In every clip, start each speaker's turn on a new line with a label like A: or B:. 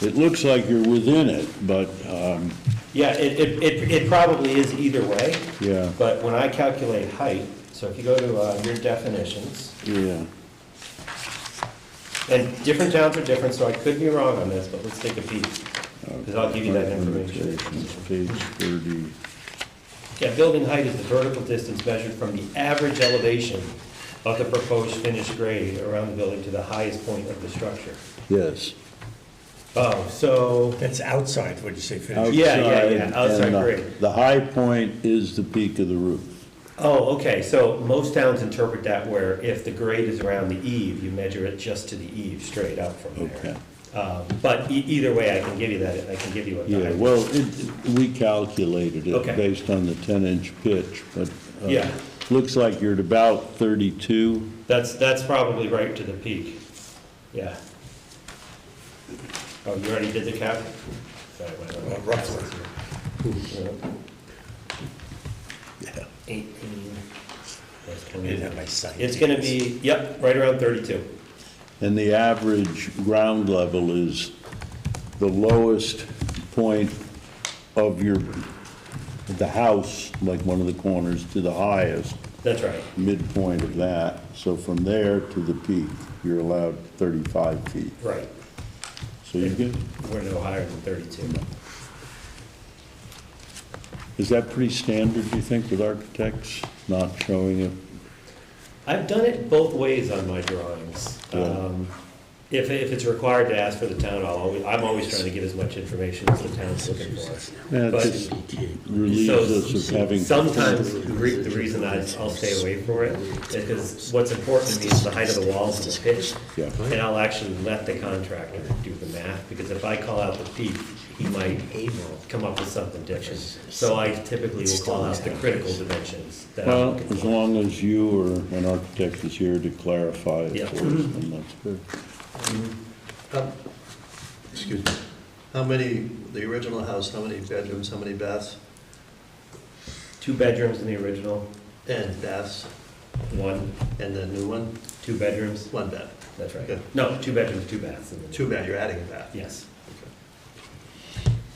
A: It looks like you're within it, but, um,
B: Yeah, it, it, it, it probably is either way.
A: Yeah.
B: But when I calculate height, so if you go to, uh, your definitions,
A: yeah,
B: and different towns are different, so I could be wrong on this, but let's take a peek. Cause I'll give you that information.
A: limitations, page thirty.
B: Yeah, building height is the vertical distance measured from the average elevation of the proposed finished grade around the building to the highest point of the structure.
A: Yes.
B: Oh, so,
C: That's outside, what'd you say,
B: Out-
C: finish?
B: Yeah, yeah, yeah,
A: and
B: outside
A: the-
B: grade.
A: The high point is the peak of the roof.
B: oh, okay, so most towns interpret that where if the grade is around the eave, you measure it just to the eave, straight up from
A: Okay.
B: there. Um, But e- either way, I can give you that, I can give you what the
A: Yeah,
B: height.
A: well, it, we calculated it
B: Okay.
A: based on the ten-inch pitch, but. uh,
B: Yeah.
A: Looks like you're at about thirty-two.
B: That's, that's probably right to the peak, yeah. Oh, you already did the cap? Sorry, wait, wait, wait.
C: Uh, Roughly.
A: Yeah.
B: 18. that's
C: I
B: 20.
C: didn't have my sight.
B: It's gonna be, yep, right around 32.
A: And the average ground level is the lowest point of your, the house, like one of the corners, to the highest
B: That's right.
A: midpoint of that. So from there to the peak, you're allowed 35 feet.
B: Right.
A: So you get,
B: We're no higher than 32.
A: is that pretty standard, do you think, with architects, not showing it?
B: I've done it both ways on my drawings.
A: Yeah.
B: Um, If, if it's required to ask for the town, I'll always, I'm always trying to get as much information as the town's looking for.
A: Yeah, it
B: But-
A: just relieves us of having.
B: Sometimes, the re- the reason I, I'll stay away from it is because what's important to me is the height of the walls and the pitch.
A: Yeah.
B: And I'll actually let the contractor do the math, because if I call out the peak, he might come up with something different. So I typically will call out the critical dimensions that I'm
A: Well,
B: looking
A: as
B: for.
A: long as you or an architect is here to clarify it
B: Yeah.
A: for us, then that's good.
D: How- Excuse me. How many, the original house, how many bedrooms, how many baths?
B: Two bedrooms in the original,
D: And baths,
B: one,
D: and the new one,
B: two bedrooms,
D: one bath.
B: that's right.
D: Yeah.
B: No, two bedrooms, two baths. in the-
D: Two bath, you're adding a bath.
B: Yes.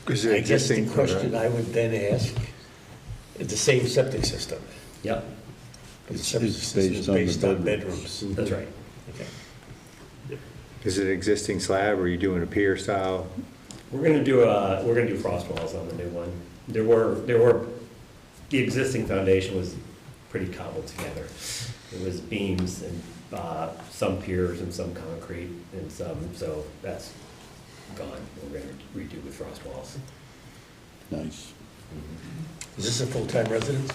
E: Is it
C: I guess the
E: existing?
C: question I would then ask, is the same septic system?
B: Yep,
C: but the
A: It's-
C: septic
A: it's
C: system is
A: based on the
C: Based on
A: bedrooms.
C: bedrooms.
B: that's
D: Mm-hmm.
B: right.
C: Okay.
E: Is it existing slab, or are you doing a pier style?
B: We're gonna do, uh, we're gonna do frost walls on the new one. There were, there were, the existing foundation was pretty cobbled together. It was beams and, uh, some piers and some concrete and some, so that's gone. We're gonna redo with frost walls.
A: Nice.
C: Is this a full-time residence?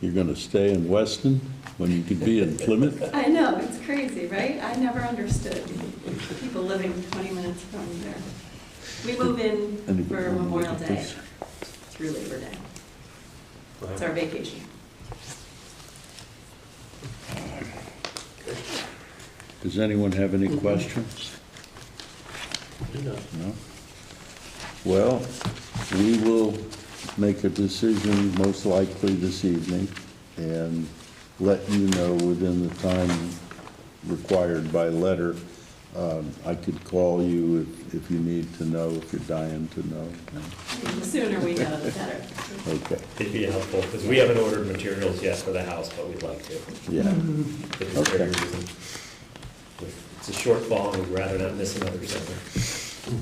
A: You're gonna stay in Weston when you could be in Plymouth?
F: I know, it's crazy, right? I never understood people living 20 minutes from there. We move in for Memorial Day through Labor Day. It's our vacation.
A: Does anyone have any questions? No? Well, we will make a decision most likely this evening and let you know within the time required by letter. Um, I could call you if, if you need to know, if you're dying to know.
F: The sooner we know, the better.
A: Okay,
B: It'd be helpful, because we haven't ordered materials yet for the house, but we'd like to.
A: yeah.
B: if it's for
A: Okay.
B: any reason. If It's a shortfall, we'd rather not miss another summer.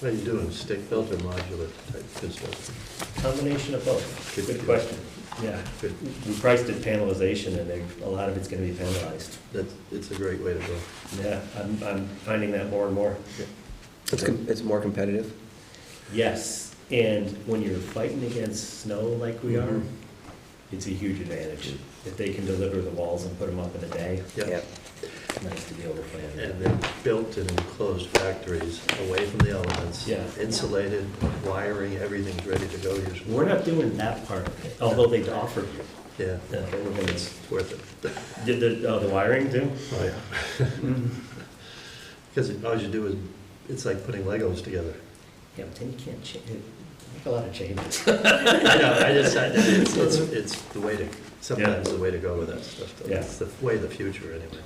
D: What are you doing, stick built or modular type construction?
B: Combination of both.
D: Good
B: Good
D: deal.
B: question. Yeah.
D: Good.
B: We priced it panelization, and they- a lot of it's gonna be panelized.
D: That's, it's a great way to go.
B: Yeah, I'm, I'm finding that more and more.
G: It's, com- it's more competitive.
B: Yes, and when you're fighting against snow like we are, it's a huge advantage. If they can deliver the walls and put them up in a day,
D: Yeah.
B: it's nice to be able to play on
D: And
B: that.
D: they're built in enclosed factories, away from the elements.
B: Yeah.
D: Insulated, wiring, everything's ready to go usually.
B: We're not doing that part of it, although they'd offer you.
D: Yeah,
B: uh, but we're gonna-
D: it's worth it.
B: Did the, oh, the wiring too?
D: Oh, yeah. Because all you do is, it's like putting Legos together.
B: Yeah, but then you can't change, make a lot of changes.
D: I know, I just, I- it's, it's, it's the way to, sometimes the way to go with that stuff. though.
B: Yeah.
D: It's the way of the future, anyway.